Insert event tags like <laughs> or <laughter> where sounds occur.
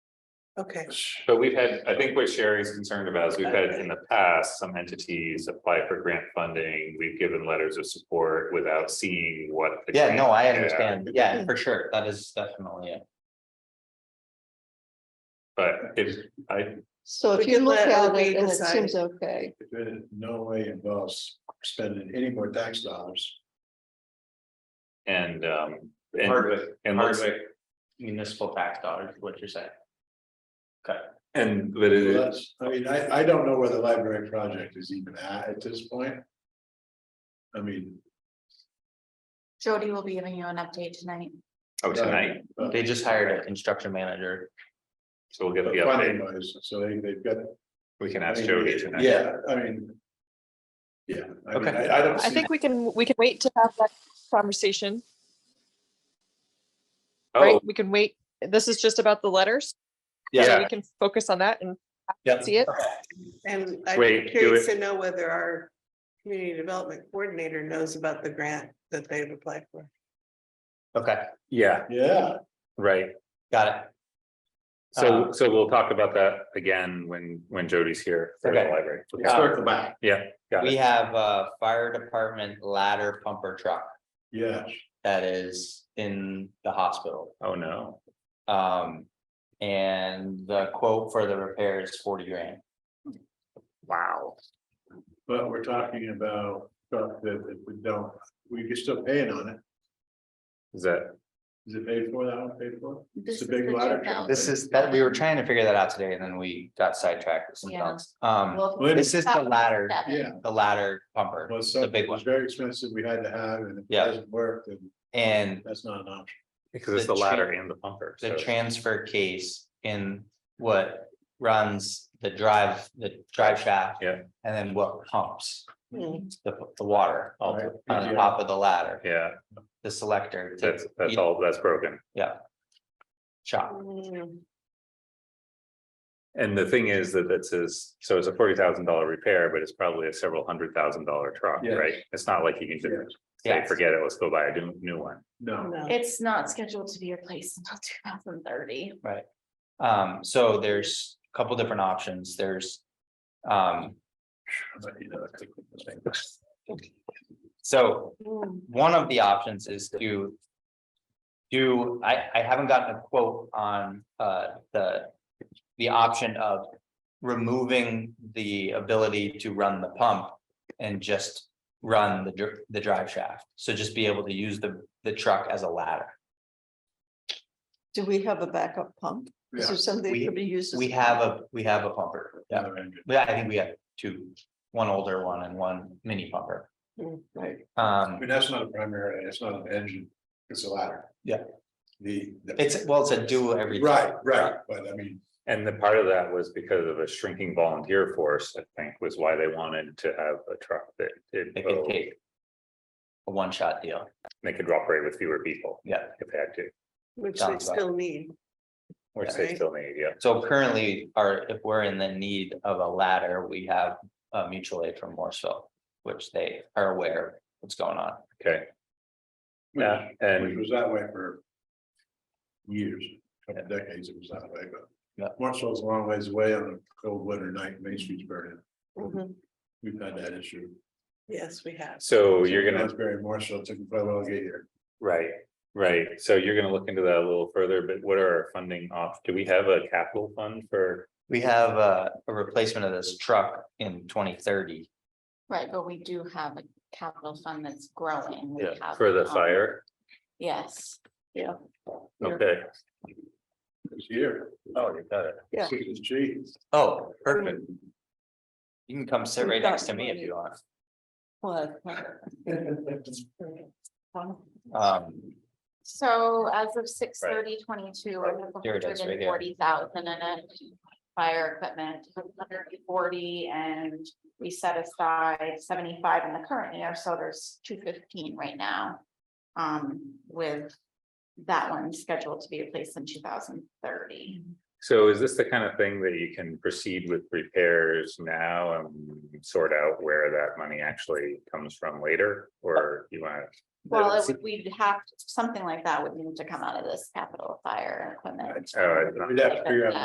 Okay, But we've had, I think what Sherry's concerned about is we've had in the past, some entities apply for grant funding. We've given letters of support without seeing what. the Yeah, no, I grant- understand. Yeah, for sure. That is definitely it. But if I, So We if you can look let at OB it and it decide. seems okay, It in no way involves spending any more tax dollars. and um, and Hardwick, and let's, Hardwick. Municipal tax dollars, is what you're saying. and but So it, That's, I mean, I, I don't know where the library project is even at at this point. I mean, Jody will be giving you an update tonight. oh, tonight, but They just hired a construction manager. so we'll get the funding update. wise, so they, they've got. We can ask Jody tonight. Yeah, I mean. Yeah, I mean, Okay. I, I don't. I see- think we can, we can wait to have that conversation, Oh, right? We can wait. This is just about the letters, so yeah, we can focus on that and Yeah. see it. and I'm Wait, do curious to know whether our community development coordinator knows about the grant that they've applied for. Okay, yeah, Yeah, right. got it. So Uh, so we'll talk about that again when when Jody's here for the Okay. library. circle back, Yeah, got We it. have a fire department ladder pumper truck yeah. that is in the hospital. Oh, no. Um, and the quote for the repair is forty grand. Wow. But we're talking about stuff that that we don't, we can still pay it on it. Is that, Is it paid for, that one paid for? This a is big the ladder two truck. thousand. This is that, we were trying to figure that out today and then we got sidetracked with some Yeah. thoughts. Um, Well, Well, this is the ladder, seven. Yeah, the ladder pumper. well, the something big that was one. very expensive, we had to have, and if it Yeah. doesn't work, then And that's not an option. because it's The the ladder tran- and the bumper. the so- transfer case in what runs the drive, the drive shaft. Yeah. And then what pumps Hmm. the, the water all Right. on the top of the ladder, Yeah, the selector. to that's that's each all, that's broken. Shop. Mm, Hmm. And the thing is that that says, so it's a forty thousand dollar repair, but it's probably a several hundred thousand dollar truck, Yes. right? It's not like you can Yes. just say, Yes. forget it, let's go buy a new new one. No, No. It's not scheduled to be replaced until <laughs> two thousand thirty. Um, so there's a couple different options. There's. Um, but you know, that's a quick mistake. so Hmm. one of the options is to. Do, I, I haven't gotten a quote on, uh, the, the option of. Removing the ability to run the pump and just run the, dr- the drive shaft. So just be able to use the, the truck as a ladder. do we have a backup pump? Is Yeah. there something that We- could be used? as- We have a, we have a pumper. Yeah, Another engine. Yeah, I think we have two, one older one and one mini pumper. Mm, Right. I Um, mean, that's not a primary, it's not an engine, it's a ladder. Yeah. The. the- it's, well, it's a dual every. Right, right, but I mean, And the part of that was because of a shrinking volunteer force, I think, was why they wanted to have a truck that did It could both. take. A one-shot deal. They could operate with fewer people. Yeah. If they had to, Which they Sounds like- still need. which they Right. still need, yeah. So currently, our, if we're in the need of a ladder, we have a mutual aid from Morseville, which they are aware of what's going on. Okay, yeah, which which and was that way for. Years, couple decades it was that way, Yeah. but. Marshall's a long ways away on a cold winter night, Main Street's burning, Mm-hmm. Mhm. we've had that issue. Yes, we have. so Oh, you're gonna. Very Marshall, it took quite a while to get here. Right, right. So you're gonna look into that a little further, but what are our funding off? Do we have a capital fund for? We have a, a replacement of this truck in twenty thirty. Right, but we do have a capital fund that's growing. We have, For the um, fire? Yes, Okay. It's here. Oh, you got it. Yeah. It's cheap. Oh, perfect. You can come sit right next to me if you want. What? <laughs> Um, so as of six thirty twenty-two, we have Here it is, right here. 140,000 in it. Fire equipment, hundred and forty, and we set aside seventy-five in the current year, so there's two fifteen right now. Um, with that one scheduled to be replaced in two thousand thirty. So is this the kind of thing that you can proceed with repairs now and sort out where that money actually comes from later? Or you want, Well, it's- it would- we'd have, something like that would need to come out of this capital fire equipment. oh, I- We'd have to figure out